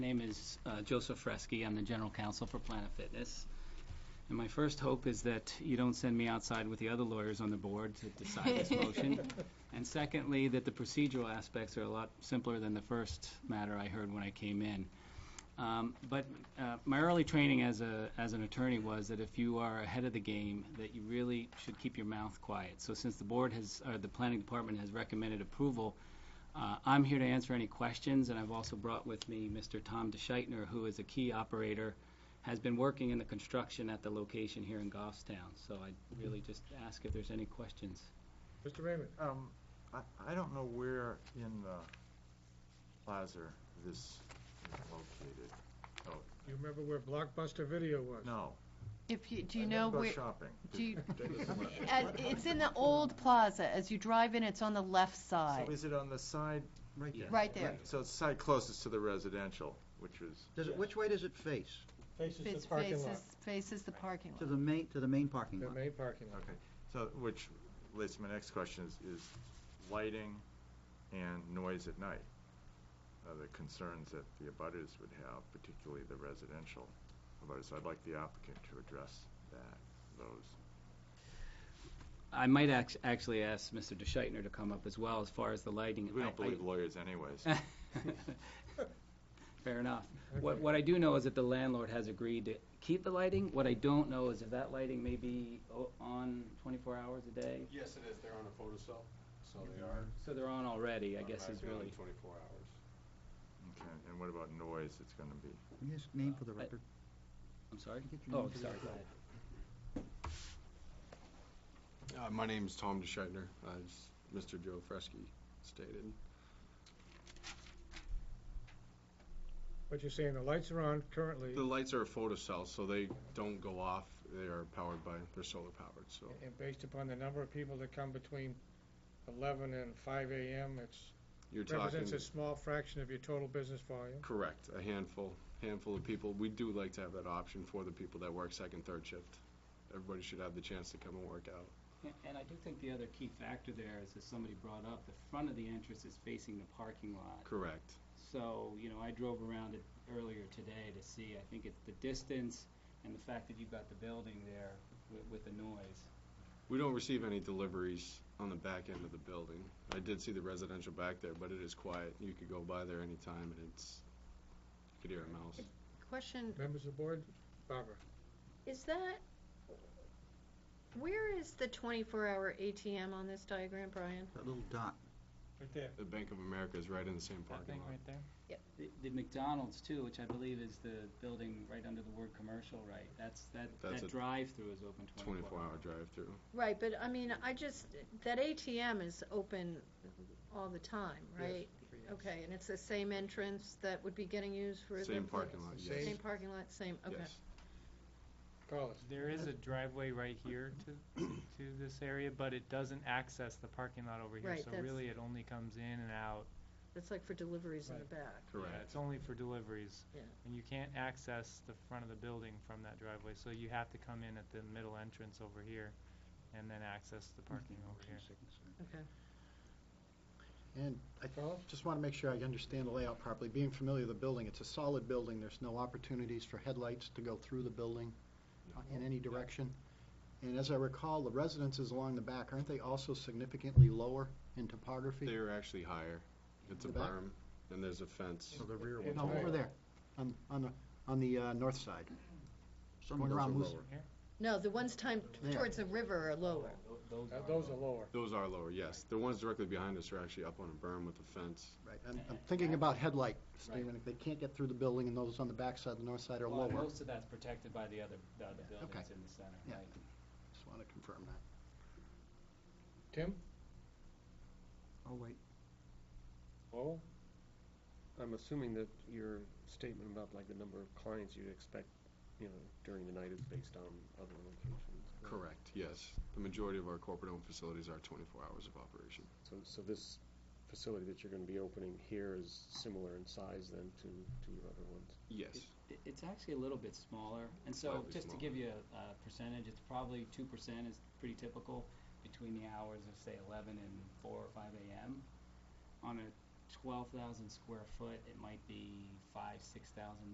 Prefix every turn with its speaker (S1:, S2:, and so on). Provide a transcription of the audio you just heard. S1: name is uh, Joseph Fresky. I'm the general counsel for Planet Fitness. And my first hope is that you don't send me outside with the other lawyers on the board to decide this motion. And secondly, that the procedural aspects are a lot simpler than the first matter I heard when I came in. Um, But uh, my early training as a, as an attorney was that if you are ahead of the game, that you really should keep your mouth quiet. So since the board has, or the planning department has recommended approval, uh, I'm here to answer any questions, and I've also brought with me Mr. Tom DeShitner, who is a key operator, has been working in the construction at the location here in Goffstown. So I really just ask if there's any questions.
S2: Mr. Raymond, um, I, I don't know where in the plaza this is located.
S3: You remember where Blockbuster Video was?
S2: No.
S4: If you, do you
S2: I
S4: know
S2: never go
S4: where,
S2: Shopping.
S4: do you,
S2: So
S4: at- it's in the old plaza, as you drive in, it's on the left side.
S2: is it on the side? Right
S1: there.
S4: Right there.
S2: So it's side closest to the residential, which is,
S5: Does it, which way does it face?
S3: Faces
S4: It's
S3: the parking lot,
S4: faces- Faces the parking
S5: To
S4: lot.
S5: the main, to the main parking
S3: the
S5: lot?
S3: main parking lot.
S2: okay, so, which leads to my next question is, is lighting and noise at night? Are the concerns that the abutters would have, particularly the residential abutters? So I'd like the applicant to address that, those.
S1: I might act- actually ask Mr. DeShitner to come up as well, as far as the lighting.
S2: We
S1: I-
S2: don't
S1: I-
S2: believe lawyers anyways.
S1: Fair enough. What, what I do know is that the landlord has agreed to keep the lighting. What I don't know is if that lighting may be o- on 24 hours a day.
S6: Yes, it is. They're on a photocell, so they are.
S1: So they're on already, I guess is
S6: automatically on
S1: really.
S6: Twenty-four hours.
S2: Okay, and what about noise it's gonna be?
S5: Can you just name for the
S1: Uh,
S5: record?
S1: I'm sorry?
S5: Get your
S1: Oh,
S5: name for the
S1: sorry, go ahead.
S6: Uh, my name's Tom DeShitner, as Mr. Joe Fresky stated.
S3: What you're saying, the lights are on currently,
S6: The lights are a photocell, so they don't go off. They are powered by, they're solar powered, so.
S3: and based upon the number of people that come between 11 and 5 AM, it's,
S6: You're talking,
S3: represents a small fraction of your total business volume.
S6: correct, a handful, handful of people. We do like to have that option for the people that work second, third shift. Everybody should have the chance to come and work out.
S1: A- And I do think the other key factor there is, as somebody brought up, the front of the entrance is facing the parking lot.
S6: Correct.
S1: So, you know, I drove around it earlier today to see, I think it's the distance and the fact that you've got the building there with, with the noise.
S6: We don't receive any deliveries on the back end of the building. I did see the residential back there, but it is quiet. You could go by there anytime and it's, you could hear a mouse.
S7: Question,
S3: Members of the board, Barbara,
S7: is that, where is the 24-hour ATM on this diagram, Brian?
S5: That little dot.
S3: right there.
S6: The Bank of America is right in the same parking lot.
S3: there?
S1: The the McDonald's too, which I believe is the building right under the word commercial, right? That's, that,
S6: That's
S1: that
S6: a
S1: drive-through is open
S6: Twenty-four
S1: 24 hours.
S6: hour drive-through.
S7: Right, but I mean, I just, that ATM is open all the time, right? Okay, and it's the same entrance that would be getting used for the...
S6: Same parking lot,
S3: the
S6: yes.
S7: Same parking lot, same, okay.
S6: Yes.
S3: Call us.
S8: There is a driveway right here to, to this area, but it doesn't access the parking lot over here.
S7: Right,
S8: So
S7: that's-
S8: really, it only comes in and out.
S7: It's like for deliveries in the back.
S8: Yeah,
S6: Correct.
S8: It's only for deliveries.
S7: Yeah.
S8: And you can't access the front of the building from that driveway, so you have to come in at the middle entrance over here and then access the parking over here.
S7: Okay.
S9: And I just want to make sure I understand the layout properly. Being familiar with the building, it's a solid building. There's no opportunities for headlights to go through the building uh, in any direction. And as I recall, the residences along the back, aren't they also significantly lower in topography?
S6: They're actually higher. It's a
S9: The back?
S6: berm and there's a fence.
S9: So the rear
S3: ones
S9: No,
S3: are
S9: over
S3: lower.
S9: there, on, on the, on the uh, north side.
S5: Some of
S9: Going
S5: those are
S9: around Moose-
S5: lower.
S7: No, the ones timed
S9: There.
S7: towards the river are lower.
S1: Those
S3: Uh,
S1: are
S3: Those are lower.
S6: Those are lower, yes. The ones directly behind us are actually up on a berm with a fence.
S9: Right, I'm, I'm thinking about headlight, Stephen, if they can't get through the building and those on the back side, the north side are
S1: Well,
S9: lower.
S1: Most of that's protected by the other, the other buildings in the center,
S9: Yeah.
S1: right?
S9: Just want to confirm that.
S3: Tim,
S5: Oh, wait.
S10: Well, Oh. I'm assuming that your statement about like the number of clients you'd expect, you know, during the night is based on other locations.
S6: Correct, yes. The majority of our corporate-owned facilities are twenty-four hours of operation.
S10: So, so this facility that you're gonna be opening here is similar in size then to, to your other ones?
S6: Yes.
S1: It- It's actually a little bit smaller, and so
S6: Slightly
S1: just to
S6: smaller.
S1: give you a a percentage, it's probably two percent is pretty typical between the hours of, say, eleven and four or five AM. On a twelve thousand square foot, it might be five, six thousand